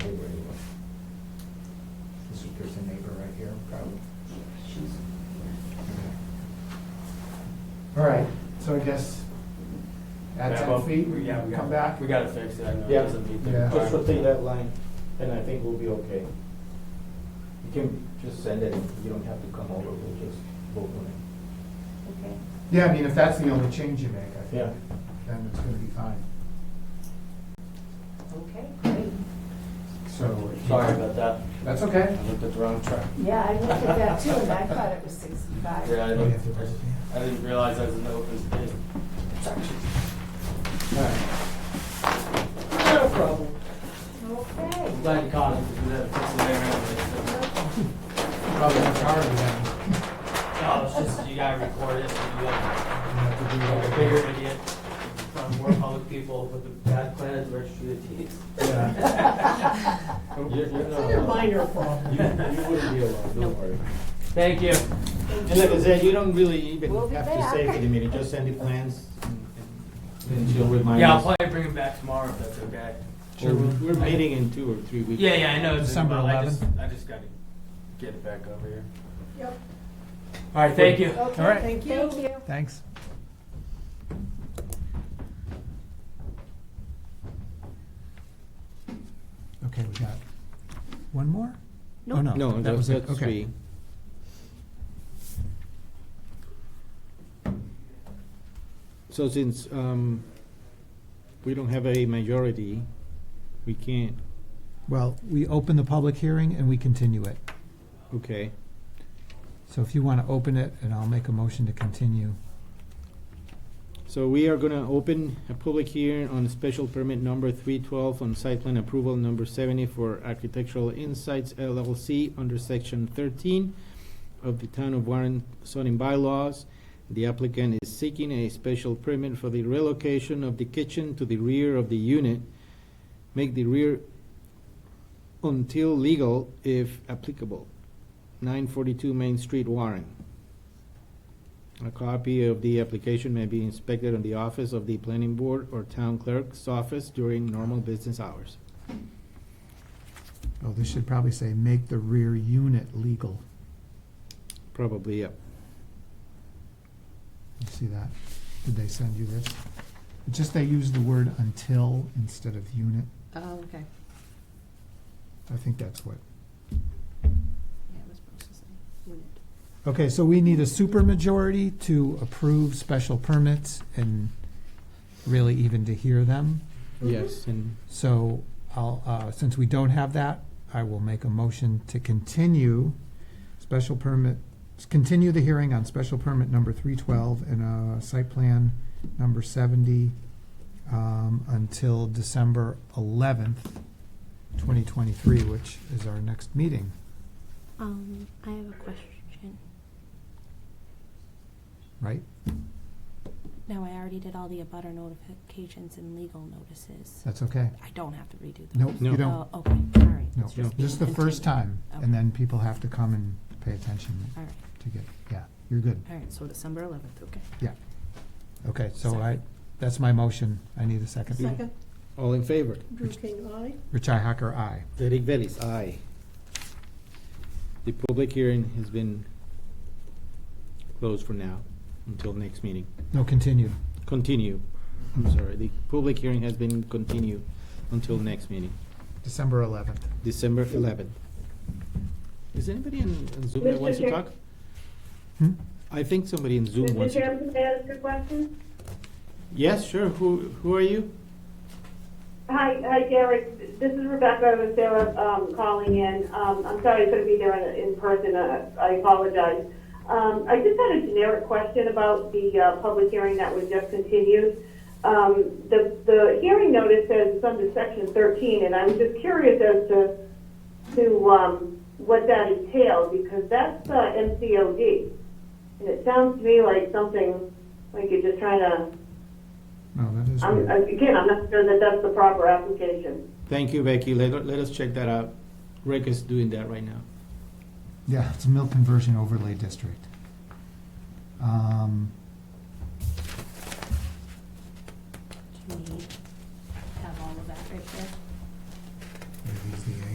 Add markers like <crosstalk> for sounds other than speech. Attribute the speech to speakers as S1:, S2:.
S1: All right, so I guess add
S2: Yeah,
S1: ten
S2: well,
S1: feet,
S2: we- yeah, we
S1: come
S2: gotta-
S1: back.
S2: We gotta fix it, I know it
S3: Yeah.
S2: doesn't meet the
S1: Yeah.
S3: Just
S2: requirement.
S3: rotate that line, and I think we'll be okay. You can just send it, you don't have to come over, we'll just vote on it.
S4: Okay.
S1: Yeah, I mean, if that's the only change you make, I
S3: Yeah.
S1: think, then it's gonna be fine.
S4: Okay, great.
S1: So.
S2: Sorry about that,
S1: That's okay.
S2: I looked at the wrong track.
S4: Yeah, I looked at that too, and I thought it was sixty-five.
S2: Yeah, I
S1: We Oh, have to
S2: didn't,
S1: vote,
S2: I didn't realize that was an open space.
S1: All right.
S2: No problem. <laughs>
S4: Okay.
S2: I'm glad you caught it, because we had to fix it there anyway, so.
S1: Probably a priority then.
S2: No, oh, it's just, you gotta record it, and you like,
S1: We have to do
S2: like a
S1: that.
S2: bigger idiot, from more public people with the bad plan at the registry of deeds.
S4: <laughs>
S1: Yeah.
S3: You're- you're not
S4: It's a
S3: allowed.
S4: minor problem.
S3: You, you wouldn't be allowed, don't worry.
S2: Thank you.
S3: And like I said, you don't really even
S4: We'll be
S3: have to say
S4: back.
S3: for the meeting, just send the plans, and- and she'll remind
S2: Yeah, I'll
S3: us.
S2: probably bring him back tomorrow if that's okay.
S3: We're we're meeting in two or three weeks.
S2: Yeah, yeah, I know, it's,
S1: December
S2: well,
S1: 11th.
S2: I just, I just gotta get it back over here.
S4: Yep.
S2: All right, thank you.
S4: Okay,
S1: All right.
S4: Thank you. Thank you.
S1: Thanks. Okay, we got one more? Oh,
S4: Nope.
S1: No, that was it, okay.
S3: So since um, we don't have a majority, we can't,
S1: Well, we open the public hearing and we continue it.
S3: okay.
S1: So if you want to open it, and I'll make a motion to continue.
S3: So we are gonna open a public hearing on special permit number three twelve on site plan approval number seventy for Architectural Insights LLC under section thirteen of the Town of Warren zoning bylaws. The applicant is seeking a special permit for the relocation of the kitchen to the rear of the unit. Make the rear until legal if applicable. Nine forty-two Main Street, Warren. A copy of the application may be inspected on the office of the planning board or town clerk's office during normal business hours.
S1: Oh, this should probably say, make the rear unit legal.
S3: Probably, yep.
S1: You see that? Did they send you this? It's just they use the word until instead of unit.
S5: Oh, okay.
S1: I think that's what.
S5: Yeah, it was supposed to say unit.
S1: Okay, so we need a supermajority to approve special permits and really even to hear them.
S3: Yes, and
S1: So I'll, uh, since we don't have that, I will make a motion to continue special permit, continue the hearing on special permit number three twelve and, uh, site plan number seventy, um, until December eleventh, twenty twenty-three, which is our next meeting.
S6: Um, I have a question.
S1: Right.
S6: Now, I already did all the abutter notifications and legal notices.
S1: That's okay?
S6: I don't have to redo those?
S1: Nope, you
S3: No.
S1: don't,
S6: Oh, okay, all right.
S1: no,
S6: It's just
S1: this is the
S6: being
S1: first
S6: continued.
S1: time, and then people have to come and pay attention
S6: All right,
S1: to get, yeah, you're good.
S6: all right, so December eleventh, okay.
S1: Okay, so I, that's my motion, I need a second.
S4: Second,
S3: all in favor?
S4: Drew King, aye.
S1: Richi Hacker, aye.
S3: Derek Bellis, aye. The public hearing has been closed for now, until next meeting.
S1: No, continued.
S3: Continue, I'm sorry, the public hearing has been continued until next meeting,
S1: December 11th.
S3: December eleventh. Is anybody in in Zoom that
S7: Mr.
S3: wants to
S7: Chair-
S3: talk?
S1: Hmm?
S3: I think somebody in Zoom
S7: Mr.
S3: wants to. talk.
S7: Chairman, may I ask a question?
S3: Yes, sure. Who who are you?
S7: Hi, hi, Derek. This is Rebecca with Sarah um, calling in. Um, I'm sorry I couldn't be there in, in person. Uh, I apologize. Um, I just had a generic question about the uh, public hearing that was just continued. Um, the, the hearing notice says it's under section 13, and I'm just curious as to to um, what that entails because that's uh, MCOD, and it sounds to me like something like you're just trying to
S1: No, that is
S7: I'm,
S1: weird.
S7: again, I'm not sure that that's the proper application.
S3: Thank you, Becky. Let, let us check that out. Rick is doing that right now.
S1: Yeah, it's a mill conversion overlay district. Um,
S5: Do you need, have all of that right there?
S1: are these the